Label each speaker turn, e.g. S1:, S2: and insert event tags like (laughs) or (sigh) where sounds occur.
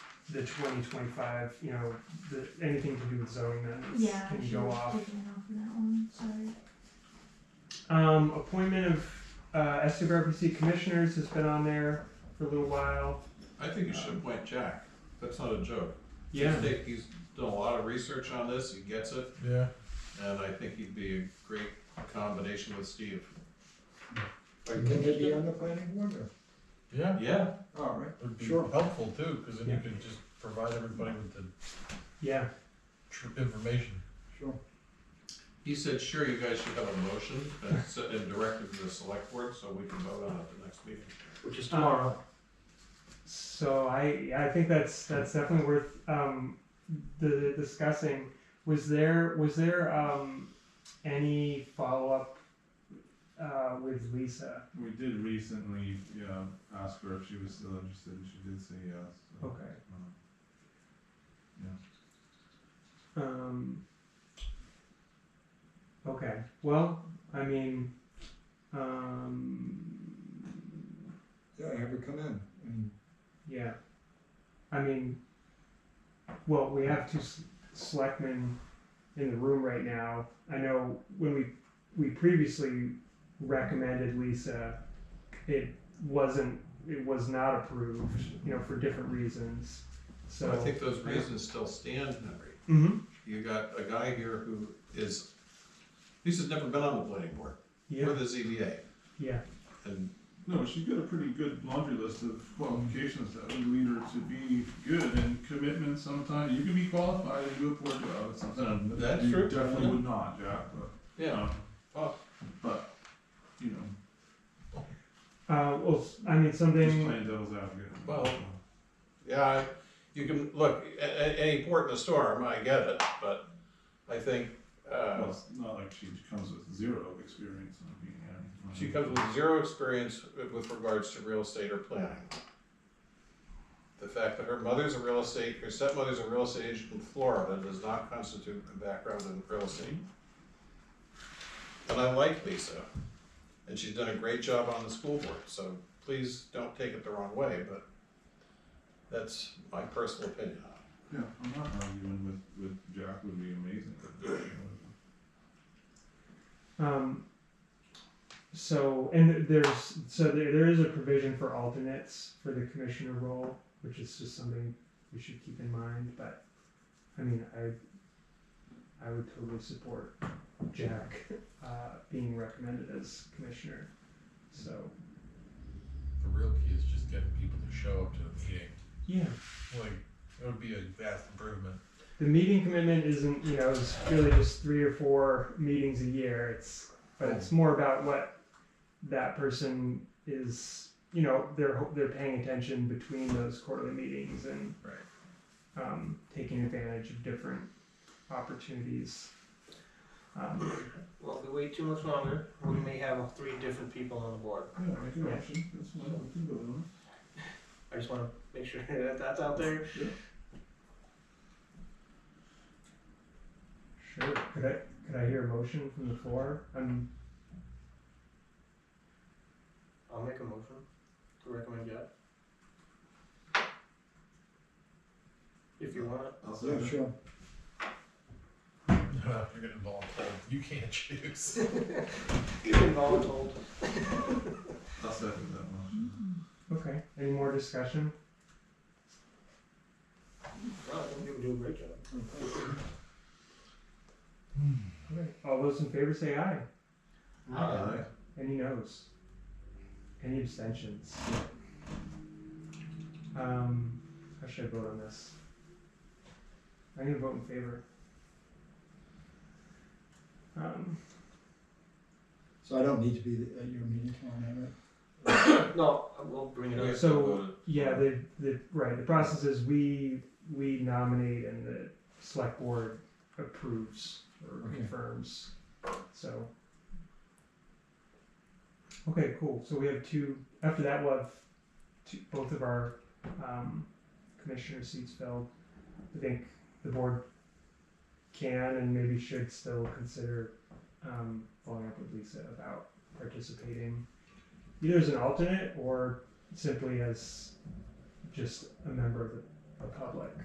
S1: the twenty twenty-five, you know, the, anything to do with zoning amendments
S2: Yeah, I
S1: can
S2: should
S1: go
S2: have
S1: off.
S2: taken it off of that one, sorry.
S1: Um, appointment of, uh, SWRPC commissioners has been on there for a little while.
S3: I think you should appoint Jack. That's not a joke.
S1: Uh, Yeah,
S3: He's, take, he's done a lot of research on this. He gets it,
S4: Yeah,
S3: and I think he'd be a great combination with Steve.
S5: Like, can they be on the planning board or?
S4: yeah,
S3: Yeah,
S5: All right,
S4: would be
S5: Sure.
S4: helpful too, because then
S1: Yeah.
S4: you could just provide everybody with the
S1: yeah,
S4: tr- information.
S5: sure.
S3: he said, sure, you guys should have a motion and, s- and direct it to the select board so we can vote on it at the next meeting.
S5: Which is
S1: tomorrow. Um, So I I think that's that's definitely worth um, the discussing. Was there was there um, any follow up uh, with Lisa?
S6: We did recently, you know, ask her if she was still interested, and she did say yes. so,
S1: Okay.
S6: um,
S1: Um, okay. Well, I mean, um,
S5: Yeah, have her come in. And
S1: yeah. I mean, well, we have two s- selectmen in the room right now. I know when we we previously recommended Lisa, it wasn't it was not approved, you know, for different reasons. So
S3: I think those reasons still stand, Henry.
S1: Mhm.
S3: You got a guy here who is, Lisa's never been on the planning board or
S1: yeah,
S3: the ZBA,
S1: yeah,
S3: and
S6: No, she's got a pretty good laundry list of qualifications that would lead her to be good and commitment sometimes. You can be qualified and do a poor job at something. that
S3: That's
S6: you
S3: true.
S6: Definitely would not, Jack, but, you
S3: yeah,
S6: know,
S3: Oh.
S6: but, you know,
S1: Uh, well, I mean,
S6: just
S1: something.
S6: playing devil's advocate.
S3: Well, Yeah, I- you can, look, a- a- any port in a storm, I get it, but I think,
S6: Well,
S3: uh,
S6: it's not like she comes with zero experience on being, yeah.
S3: she comes with zero experience with regards to real estate or planning. The fact that her mother's a real estate, her stepmother's a real estate agent in Florida does not constitute a background in real estate. And I like Lisa, and she's done a great job on the school board, so please don't take it the wrong way, but that's my personal opinion on it.
S6: Yeah, I'm not arguing with, with Jack would be amazing.
S1: Um, so and there's so there, there is a provision for alternates for the commissioner role, which is just something we should keep in mind. But I mean, I I would totally support Jack uh, being recommended as commissioner. So
S4: The real key is just getting people to show up to the meeting.
S1: yeah,
S4: Like, it would be a vast improvement.
S1: the meeting commitment isn't you know it's really just three or four meetings a year it's but it's more about what that person is you know they're ho- they're paying attention between those quarterly meetings and
S4: Right.
S1: um, taking advantage of different opportunities um,
S7: Well, if we wait too much longer, we may have three different people on the board.
S6: Yeah, make an option, that's fine, we can go on.
S7: I just wanna make sure (laughs) that that's out there.
S1: sure could i could i hear a motion from the floor um,
S7: I'll make a motion to recommend Jeff. If you want it.
S6: I'll say
S5: yeah,
S6: that.
S5: sure.
S4: You're getting involved. You can't (laughs) choose.
S7: You've been voluntold.
S6: I'll second that motion.
S1: okay any more discussion
S7: Well, I think you would do a great job.
S1: all those in favor say aye
S6: Aye.
S1: Any no's? Any abstentions? Um, how should I vote on this? I'm gonna vote in favor. Um,
S5: So I don't need to be at your meeting tomorrow night, right?
S7: No, we'll bring it up.
S1: so, yeah, the, the, right, the process is we, we nominate and the select board approves or
S5: Okay.
S1: confirms, so. Okay, cool, so we have two, after that we'll have two, both of our, um, commissioner seats filled. I think the board can and maybe should still consider, um, following up with Lisa about participating either as an alternate or simply as just a member of the